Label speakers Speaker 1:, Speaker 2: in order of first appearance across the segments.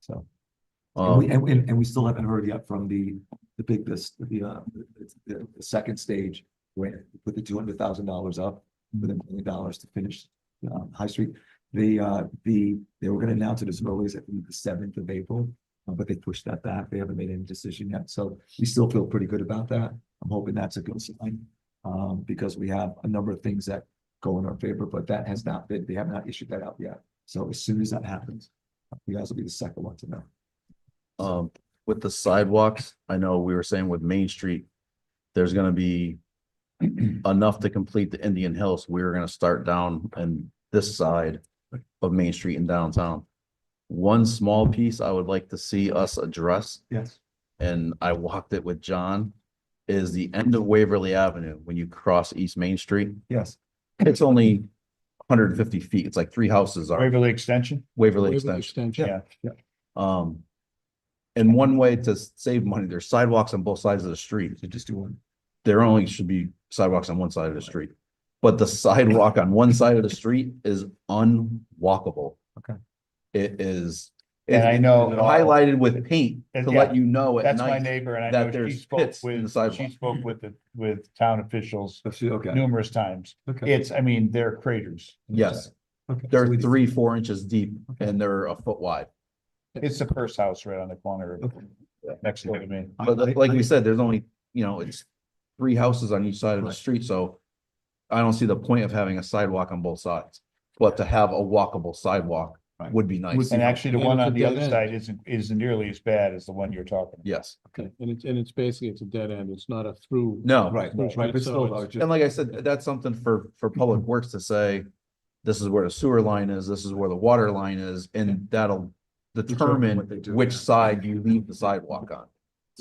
Speaker 1: so. And we,
Speaker 2: Um,
Speaker 1: and, and, and we still haven't heard yet from the, the big, this, the, uh, the, the second stage. Where we put the two hundred thousand dollars up with a million dollars to finish, um, High Street. The, uh, the, they were gonna announce it as early as I think, the seventh of April, uh, but they pushed that back. They haven't made any decision yet, so we still feel pretty good about that. I'm hoping that's a good sign, um, because we have a number of things that go in our favor, but that has not been, they have not issued that out yet. So as soon as that happens, you guys will be the second one to know.
Speaker 2: um, with the sidewalks, I know we were saying with Main Street, there's gonna be enough to complete the Indian Hills. We're gonna start down and this side of Main Street in downtown. One small piece I would like to see us address
Speaker 1: Yes.
Speaker 2: and I walked it with John, is the end of Waverly Avenue, when you cross East Main Street,
Speaker 1: Yes,
Speaker 2: it's only hundred and fifty feet, it's like three houses are
Speaker 3: Waverly Extension?
Speaker 2: Waverly
Speaker 4: Waverly
Speaker 2: Extension.
Speaker 4: Extension.
Speaker 3: Yeah.
Speaker 2: Um, and one way to s- save money, there's sidewalks on both sides of the street,
Speaker 1: so just do one.
Speaker 2: there only should be sidewalks on one side of the street. But the sidewalk on one side of the street is unwalkable.
Speaker 1: Okay.
Speaker 2: It is.
Speaker 3: And I know- uh,
Speaker 2: Highlighted with paint to let you know at
Speaker 3: That's my
Speaker 2: night,
Speaker 3: neighbor and I
Speaker 2: that
Speaker 3: know she
Speaker 2: there's
Speaker 3: spoke
Speaker 2: pits in the
Speaker 3: with, she
Speaker 2: sidewalk.
Speaker 3: spoke with the, with town officials
Speaker 1: Let's see, Okay,
Speaker 3: numerous times.
Speaker 1: okay.
Speaker 3: It's, I mean, they're craters.
Speaker 2: yes,
Speaker 1: okay. So
Speaker 2: they're
Speaker 1: it's-
Speaker 2: three, four inches deep and they're a foot wide.
Speaker 3: It's the first house right on the corner of-
Speaker 1: okay.
Speaker 3: next door to me.
Speaker 1: I-
Speaker 2: But li-
Speaker 1: I-
Speaker 2: like
Speaker 1: I-
Speaker 2: we said, there's only, you know, it's three houses on each side of the
Speaker 1: Right.
Speaker 2: street, so. I don't see the point of having a sidewalk on both sides, but to have a walkable sidewalk
Speaker 1: Right.
Speaker 2: would be
Speaker 1: Would
Speaker 2: nice.
Speaker 1: be-
Speaker 3: And actually, the
Speaker 4: And
Speaker 3: one
Speaker 4: it's a
Speaker 3: on the
Speaker 4: dead
Speaker 3: other
Speaker 4: end.
Speaker 3: side isn't, isn't nearly as bad as the one you're talking. about.
Speaker 2: Yes,
Speaker 4: Okay, and it's, and it's basically, it's a dead end, it's not a through.
Speaker 2: no,
Speaker 1: Right, right,
Speaker 4: Right,
Speaker 1: but
Speaker 4: so
Speaker 1: still,
Speaker 4: it's-
Speaker 1: I was just-
Speaker 2: and like I said, that's something for, for public works to say. This is where the sewer line is, this is where the water line is, and that'll
Speaker 1: Determine what they
Speaker 2: determine
Speaker 1: do,
Speaker 2: which
Speaker 1: yeah.
Speaker 2: side you leave the sidewalk on.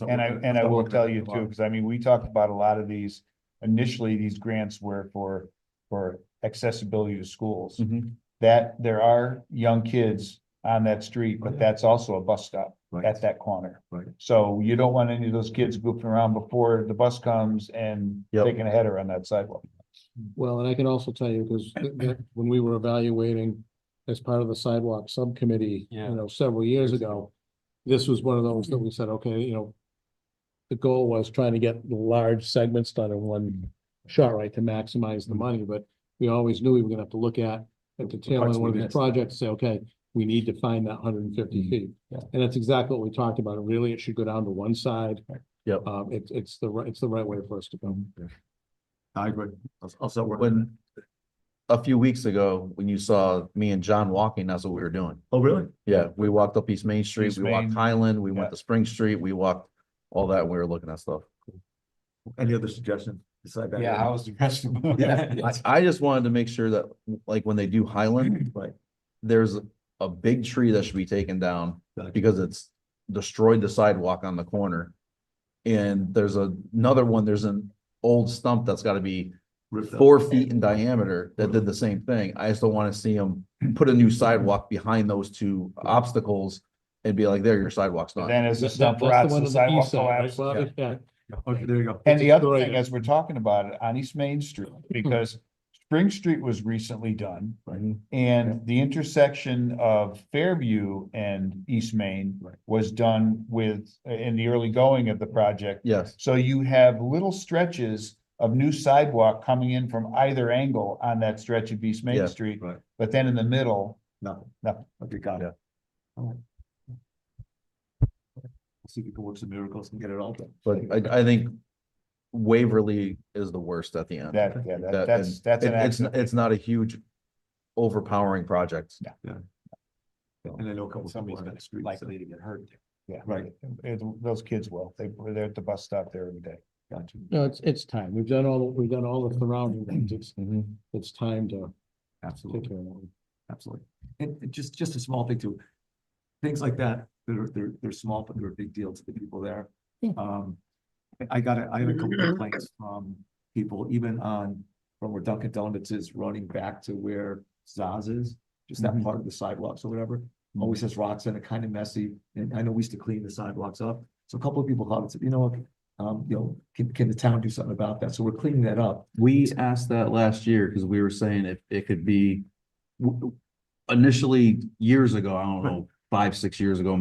Speaker 3: And I, and I will tell you too,
Speaker 1: Something-
Speaker 3: because I mean, we talked about a lot of these, initially, these grants were for, for accessibility to schools.
Speaker 1: Mm-hmm.
Speaker 3: That, there are young kids on that street,
Speaker 1: Oh,
Speaker 3: but
Speaker 1: yeah.
Speaker 3: that's also a bus stop.
Speaker 1: Right,
Speaker 3: at that corner.
Speaker 1: Right.
Speaker 3: So you don't want any of those kids goofing around before the bus comes and
Speaker 2: Yep.
Speaker 3: taking a header on that sidewalk.
Speaker 4: Well, and I can also tell you, because when we were evaluating as part of the sidewalk subcommittee, you
Speaker 1: Yeah.
Speaker 4: know, several years ago, this was one of those that we said, okay, you know, the goal was trying to get large segments done in one shot, right, to maximize the money, but we always knew we were gonna have to look at at the tail end
Speaker 1: parts
Speaker 4: of one of
Speaker 1: we
Speaker 4: these
Speaker 1: missed.
Speaker 4: projects, say, okay, we need to find that hundred and fifty feet.
Speaker 1: Mm-hmm. yeah.
Speaker 4: And that's exactly what we talked about. Really, it should go down to one side.
Speaker 2: Yep.
Speaker 4: Um, it's, it's the, right it's the right way for us to go.
Speaker 1: I agree. I'll- I'll start working on
Speaker 2: When. A few weeks ago, when you saw me and John walking, that's what we were doing.
Speaker 1: that. Oh, really?
Speaker 2: Yeah, we walked up East Main Street,
Speaker 3: East
Speaker 2: we walked
Speaker 3: Main.
Speaker 2: Highland, we went
Speaker 3: Yeah.
Speaker 2: to Spring Street, we walked all that, we were looking at stuff.
Speaker 1: Any other suggestion? Decide that.
Speaker 3: was the rest of
Speaker 1: Yeah.
Speaker 2: I, I just wanted to make sure that, like, when they do Highland.
Speaker 1: Right.
Speaker 2: There's a big tree that should be taken down
Speaker 1: Gotcha.
Speaker 2: because it's destroyed the sidewalk on the corner. And there's a- another one, there's an old stump that's gotta be
Speaker 1: Ripped up.
Speaker 2: four feet in diameter that did the same thing. I just don't wanna see them put a new sidewalk behind those two obstacles. And be like, there, your sidewalk's not.
Speaker 3: Then as the
Speaker 4: That-
Speaker 3: stump
Speaker 4: that's the
Speaker 3: rots,
Speaker 4: one on
Speaker 3: the
Speaker 4: the
Speaker 3: sidewalk
Speaker 4: east side,
Speaker 3: collapses.
Speaker 4: right, Bobby? Yeah.
Speaker 1: Okay, there you go.
Speaker 3: And the other
Speaker 4: Right.
Speaker 3: thing, as we're talking about it, on East Main Street, because Spring Street was recently done.
Speaker 2: Mhm.
Speaker 3: And the intersection of Fairview and East Main
Speaker 1: Right.
Speaker 3: was done with, in the early going of the project.
Speaker 2: Yes,
Speaker 3: So you have little stretches of new sidewalk coming in from either angle on that stretch of East
Speaker 2: Yeah,
Speaker 3: Main Street.
Speaker 1: right.
Speaker 3: But then in the middle,
Speaker 1: Nothing.
Speaker 3: Nothing.
Speaker 1: Okay, got
Speaker 2: Yeah.
Speaker 1: it. All right. See if we can work some miracles and get it all done.
Speaker 2: but I, I think Waverly is the worst at the end.
Speaker 3: that, yeah, that-
Speaker 2: That-
Speaker 3: that's,
Speaker 2: and
Speaker 3: that's an
Speaker 2: it- it's,
Speaker 3: accident.
Speaker 2: it's not a huge overpowering project.
Speaker 3: Yeah.
Speaker 1: And I know a couple. people
Speaker 3: Somebody's
Speaker 1: on that
Speaker 3: gonna
Speaker 1: street, so-
Speaker 3: likely to get hurt. Yeah.
Speaker 1: Right.
Speaker 3: It- Those kids will. They, they're at the bus stop there every day.
Speaker 1: Gotcha.
Speaker 4: No, it's, it's time. We've done all, we've done all the surrounding things. It's,
Speaker 3: Mm-hmm.
Speaker 4: it's time to
Speaker 1: Absolutely.
Speaker 4: take care of that.
Speaker 1: Absolutely. And and just, just a small thing too. Things like that, they're, they're, they're small, but they're a big deal to the people there.
Speaker 4: Yeah.
Speaker 1: Um, I- I got, a- I had a couple complaints from people, even on, from where Dunkin' Donuts is running back to where Zaz is. Just that
Speaker 2: Mhm.
Speaker 1: part of the sidewalks or whatever, always has rocks in it, kind of messy, and I know we used to clean the sidewalks up. So a couple of people called and said, you know what, um, you know, can, can the town do something about that? So we're cleaning that up.
Speaker 2: We asked that last year because we were saying if it could be w- initially years ago, I don't know, five, six years ago,